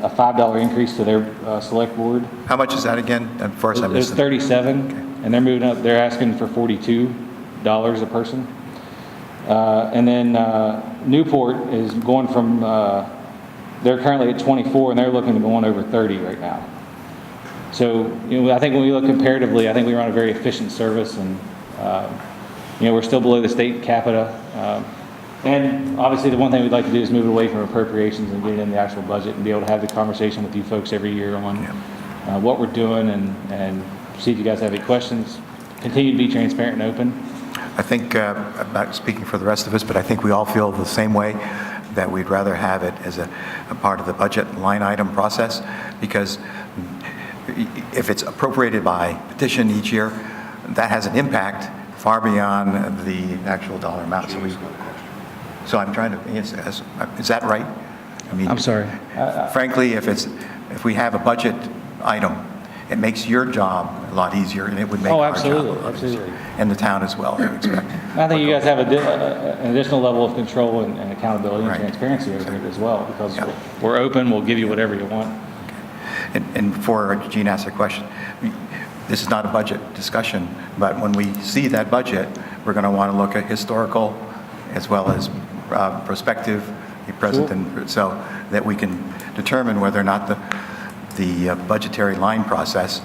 $5 increase to their uh, select board. How much is that again? At first, I It was missed it. 37, and they're moving up, they're asking for $42 a person. Uh, And then uh, Newport is going from, uh, they're currently at 24, and they're looking to go on over 30 right now. So, you know, I think when we look comparatively, I think we run a very efficient service, and, uh, you know, we're still below the state capita. Um, And obviously, the one thing we'd like to do is move it away from appropriations and get it in the actual budget and be able to have the conversation with you folks every year on uh, what we're doing and, and see if you guys have any questions. Continue to be transparent and open. I think, uh, I'm not speaking for the rest of us, but I think we all feel the same way, that we'd rather have it as a, a part of the budget line item process, because if it's appropriated by petition each year, that has an impact far beyond the actual dollar amount. So we, so I'm trying to, is, is is that right? I mean, I'm sorry. Frankly, if it's, if we have a budget item, it makes your job a lot easier, and it would make Oh, our job a absolutely, lot easier. absolutely. And the town as well, I would expect. I think you guys have a di- a- an additional level of control and and accountability and Right. transparency over it as well, because Yeah. we're open, we'll give you whatever you want. And and before Gene asks a question, this is not a budget discussion, but when we see that budget, we're going to want to look at historical as well as uh, prospective, the present, Sure. and so that we can determine whether or not the, the uh, budgetary line process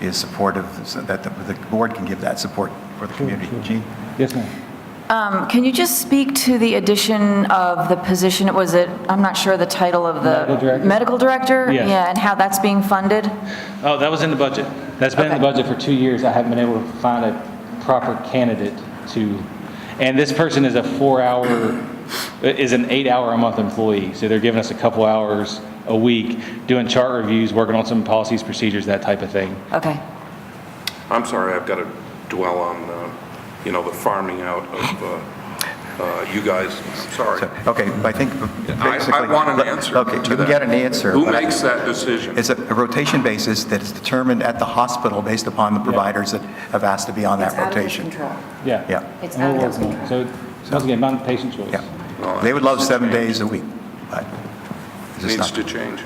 is supportive, so that the the board can give that support for the community. Gene? Yes, ma'am. Um, Can you just speak to the addition of the position, was it, I'm not sure the title of the... Medical director? Medical director? Yes. Yeah, and how that's being funded? Oh, that was in the budget. That's been in the Okay. budget for two years. I haven't been able to find a proper candidate to, and this person is a four-hour, is an eight-hour-a-month employee, so they're giving us a couple hours a week, doing chart reviews, working on some policies, procedures, that type of thing. Okay. I'm sorry, I've got to dwell on, uh, you know, the farming out of uh, uh, you guys. I'm So, sorry. Okay, I think I- basically... I want an answer Okay, you to can that. get an answer. Who but I- makes that decision? It's a a rotation basis that is determined at the hospital based upon the providers that have asked to be on that rotation. Yeah. Yeah. It's And we're out of working on it. So, once again, my patient choice. Yeah. They would love seven days a week, but it's just Needs to not. change.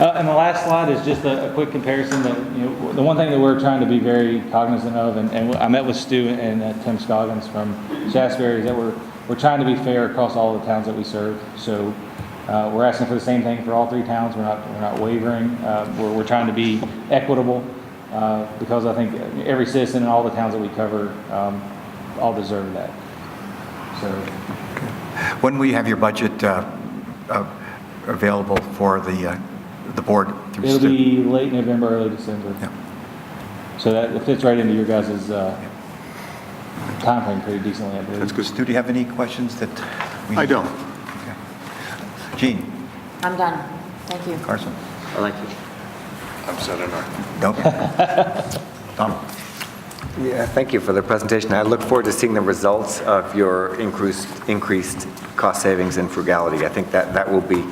Uh, And the last slide is just a a quick comparison that, you know, the one thing that we're trying to be very cognizant of, and- and I met with Stu and uh, Tim Scoggins from Shasberry, is that we're, we're trying to be fair across all the towns that we serve. So uh, we're asking for the same thing for all three towns. We're not, we're not wavering. Uh, We're, we're trying to be equitable uh, because I think every citizen in all the towns that we cover um, all deserve that. So When will you have your budget uh, uh, available for the, uh, the board? through It'll Stu? be late November, early December. Yeah. So that fits right into your guys' uh, timeframe pretty decently, I That's believe. good. Stu, do you have any questions that? we- I don't. Gene, I'm done. Thank you. Carson? I like it. I'm setting our, Nope. Tom? Yeah, thank you for the presentation. I look forward to seeing the results of your increased, increased cost savings and frugality. I think that, that will be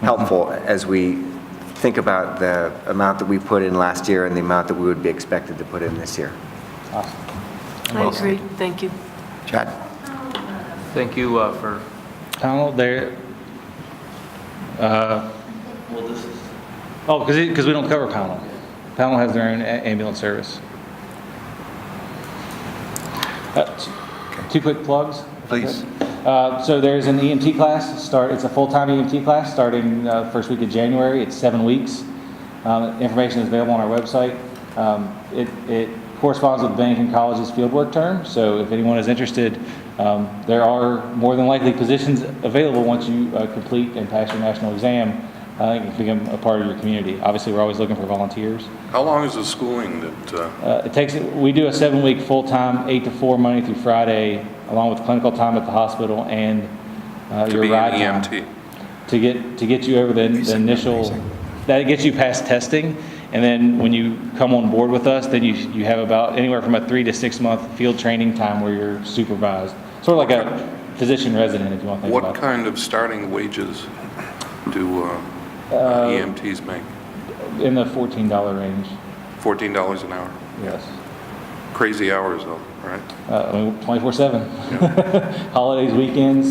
helpful as we think about the amount that we put in last year and the amount that we would be expected to put in this year. I agree, thank you. Chad? Thank you uh, for, Donald, there, uh, well, this is, oh, because, because we don't cover Pownell. Pownell has their own a- ambulance service. Uh, t- Two quick plugs. if I could. Please. Uh, So there's an EMT class, start, it's a full-time EMT class, starting uh, first week of January, it's seven weeks. Um, Information is available on our website. Um, It it corresponds with Bennington College's fieldwork term, so if anyone is interested, um, there are more than likely positions available once you uh, complete and pass your national exam, uh, and become a part of your community. Obviously, we're always looking for volunteers. how long is the schooling that, uh, Uh, It takes, we do a seven-week full-time, eight to four, Monday through Friday, along with clinical time at the hospital and uh, to your be ride an E time. EMT? To get, to get you over the the initial, that gets you past testing, and then when you come on board with us, then you, you have about anywhere from a three to six-month field training time where you're supervised, sort of like a physician resident, if you want to think What about it. kind of starting wages do uh, EMTs make? In the $14 range, $14 an hour. yes. Crazy hours, though, right? Uh, I mean, 24/7. Holidays, weekends,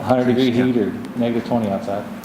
100-degree heat or negative 20 outside.